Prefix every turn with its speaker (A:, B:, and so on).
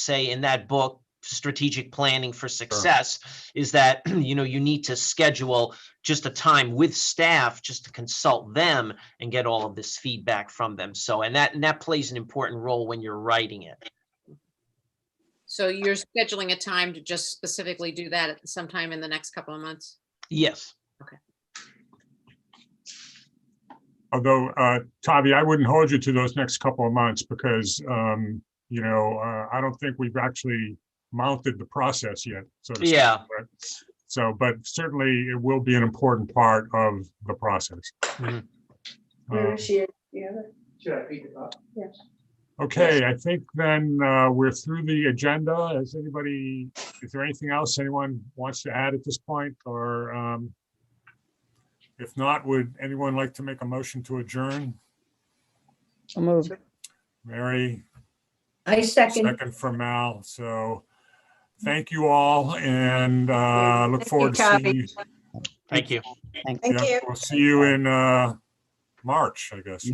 A: say in that book, strategic planning for success, is that, you know, you need to schedule just a time with staff, just to consult them and get all of this feedback from them. So, and that, and that plays an important role when you're writing it.
B: So you're scheduling a time to just specifically do that at sometime in the next couple of months?
A: Yes.
C: Although, uh, Tavi, I wouldn't hold you to those next couple of months because, um, you know, uh, I don't think we've actually mounted the process yet. so to speak,
A: Yeah.
C: right? So, but certainly it will be an important part of the process.
A: Mhm.
C: Um,
D: Where is she? Do you have it?
E: Should I read it up?
C: Okay, I think then uh, we're through the agenda. Is anybody, is there anything else anyone wants to add at this point or? um, If not, would anyone like to make a motion to adjourn?
F: I'll move.
C: Mary,
D: I second.
C: second from Mal. So thank you all and uh, look forward to seeing you.
A: Thank you.
F: Thanks.
C: Yeah, We'll see you in uh, March, I guess.